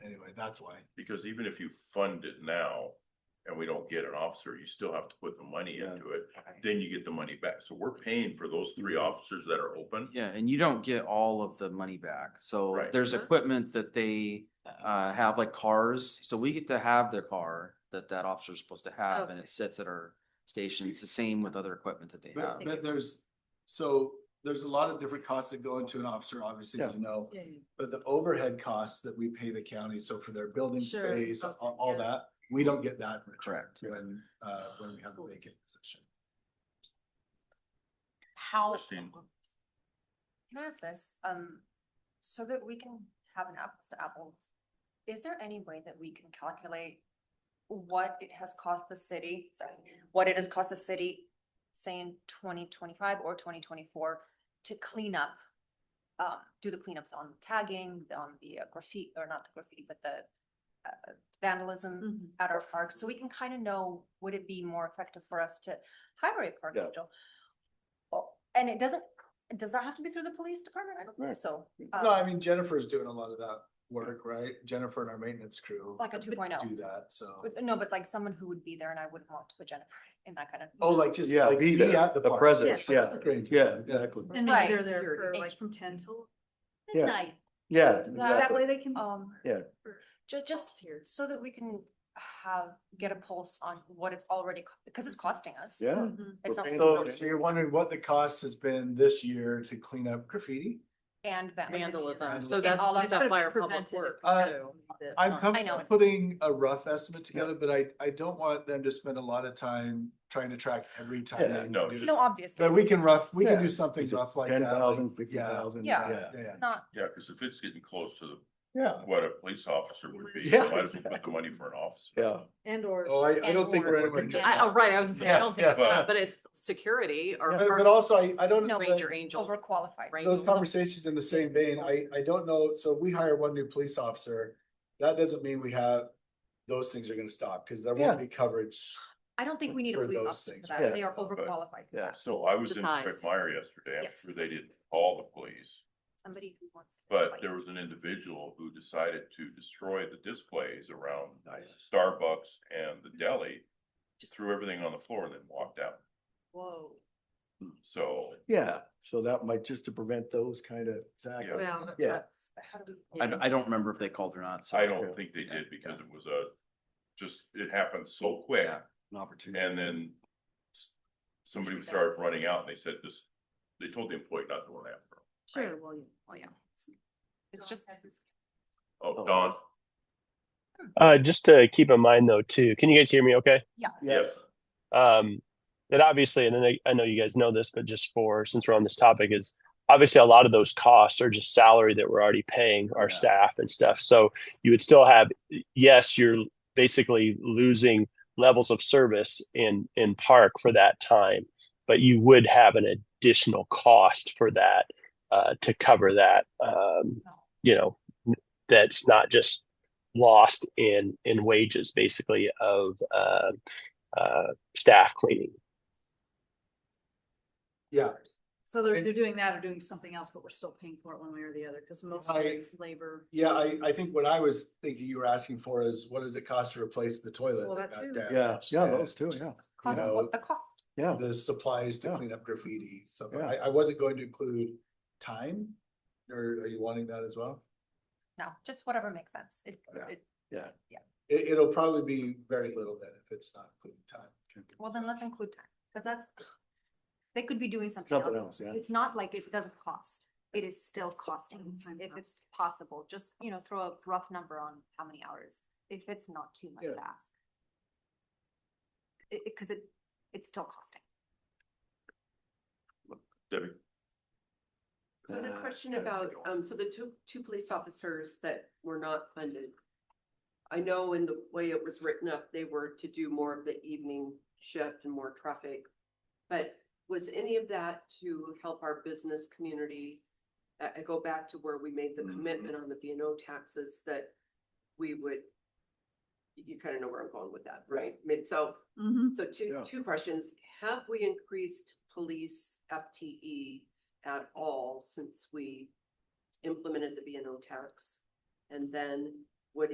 That's why. Because even if you fund it now and we don't get an officer, you still have to put the money Yeah. into it. Then you get the money back. So we're paying for those three Mm-hmm. officers that are open. Yeah, and you don't get all of the money back. So Right. there's equipment that they uh have like cars. So we get to have their car that that officer's supposed to have and Okay. it sits at our station. It's the same with other equipment that they have. But, but there's, so there's a lot of different costs that go into an officer, obviously, as you know. But the overhead costs that we pay the county, so for their building Sure. space, all, all Yeah. that, we don't get that. in return Correct. When, uh, when we have a vacant position. How? Christine. Can I ask this, um, so that we can have an apples to apples, is there any way that we can calculate what it has cost the city, sorry, what it has cost the city, say in twenty twenty-five or twenty twenty-four to clean up, um, do the cleanups on tagging, on the uh, graffiti, or not the graffiti, but the uh, Mm-hmm. vandalism at our parks, so we can kind of know, would it be more effective for us to hire a park Yeah. angel? Oh, and it doesn't, it does not have to be through the police department, I don't think Right. so. No, Um, I mean Jennifer's doing a lot of that work, right? Jennifer and our maintenance crew. Like a oh. 2.0. Do that, so. but- No, but like someone who would be there and I wouldn't want to put Jennifer in that kind of. Oh, like just Yeah, like be be there, at the the park. presence, Yes, yeah. great. Yeah, exactly. And maybe Right. they're there for Security. like from ten till Yeah. midnight. Yeah. That exactly. way they can. Um, Yeah. ju- just so that we can have, get a pulse on what it's already, co- because it's costing us. Yeah. Mhm. It's not. Okay. So, so you're wondering what the cost has been this year to clean up graffiti? And Vandalism. vandalism. So And that's- all of It's gonna that. be by our public prevented if works, we had too. somebody that- I'm Oh, I know comfortable it's- putting a rough estimate together, but I, I don't want them to spend a lot of time trying to track every time. Yeah, they no, do just- No, it. obviously. But we can rough, we can Yeah. do something rough like that. Ten like- thousand, fifty Yeah, thousand. Yeah. yeah, yeah. Not, Yeah, because if it's getting close to Yeah, what a police officer would be, Yeah, why does it put the money for an officer? yeah. And or. Oh, I, I And don't think we're more. anywhere. near I, that. oh, right, I was gonna say, Yeah, I don't think it's yeah. that, but it's security or. Yeah. But, but park also, I, I don't. No, the- Ranger angel. overqualified. ranger. those conversations in the same vein, I, I don't know, so we hire one new police officer, that doesn't mean we have, those things are gonna stop, cause there won't be coverage. I don't think we need a For police those officer things, for yeah. that. They are overqualified for Yeah. that. So I was Just in hides. Fred Meyer yesterday. I'm Yes. sure they did all the police. Somebody who wants. to But fight. there was an individual who decided to destroy the displays around Starbucks and the deli. Just threw everything on the floor and then walked out. Whoa. So Yeah, so that might just to prevent those kind of, exactly, Well, yeah. How do we- I, don't- I don't remember if they called or not. so- I don't think they Yeah. did because it was a, just, it happened so quick. Yeah. An opportunity. And then s- somebody started running out and they said this, they told the employee not to run after them. Sure, well, yeah, well, yeah. It's just. Oh, Oh. Don, Uh, just to keep in mind though, too, can you guys hear me okay? yes, Um, that obviously, and then I, I know you guys know this, but just for, since we're on this topic is obviously a lot of those costs are just salary that we're already paying our Yeah. staff and stuff. So you would still have, yes, you're basically losing levels of service in, in park for that time, but you would have an additional cost for that, uh, to cover that, um, you know, that's not just lost in, in wages basically of, uh, uh, staff cleaning. Yeah, So they're, And- they're doing that or doing something else, but we're still paying for it one way or the other, because most of I- it's labor. yeah, I, I think what I was thinking you were asking for is, what does it cost to replace the toilet? Well, that got too. Yeah, damaged? yeah, And those two, just yeah, Cost, know- what the cost? yeah. The supplies to Yeah. clean up graffiti, so Yeah. I, I wasn't going to include time, or are you wanting that as well? No, just whatever makes sense. It, Yeah. it, It, it'll probably be very little then if it's not including time. well, then let's include time, because that's, they could be doing something Something else. else, yeah. It's not like it doesn't cost. It is still costing, Time if cost. it's possible, just, you know, throw a rough number on how many hours, if it's not too much Yeah. to ask. It, it, because it, it's still costing. Debbie. So the Uh, question yeah, it's about, like a- um, so the two, two police officers that were not funded. I know in the way it was written up, they were to do more of the evening shift and more traffic. But was any of that to help our business community? I, I go back to where we made the Mm-hmm. Mhm. commitment on the B and O taxes that we would. You kind of know where I'm going with that, right? I mean, so Mm-hmm. so two, Yeah. two questions. Have we increased police FTE at all since we implemented the B and O tax? And then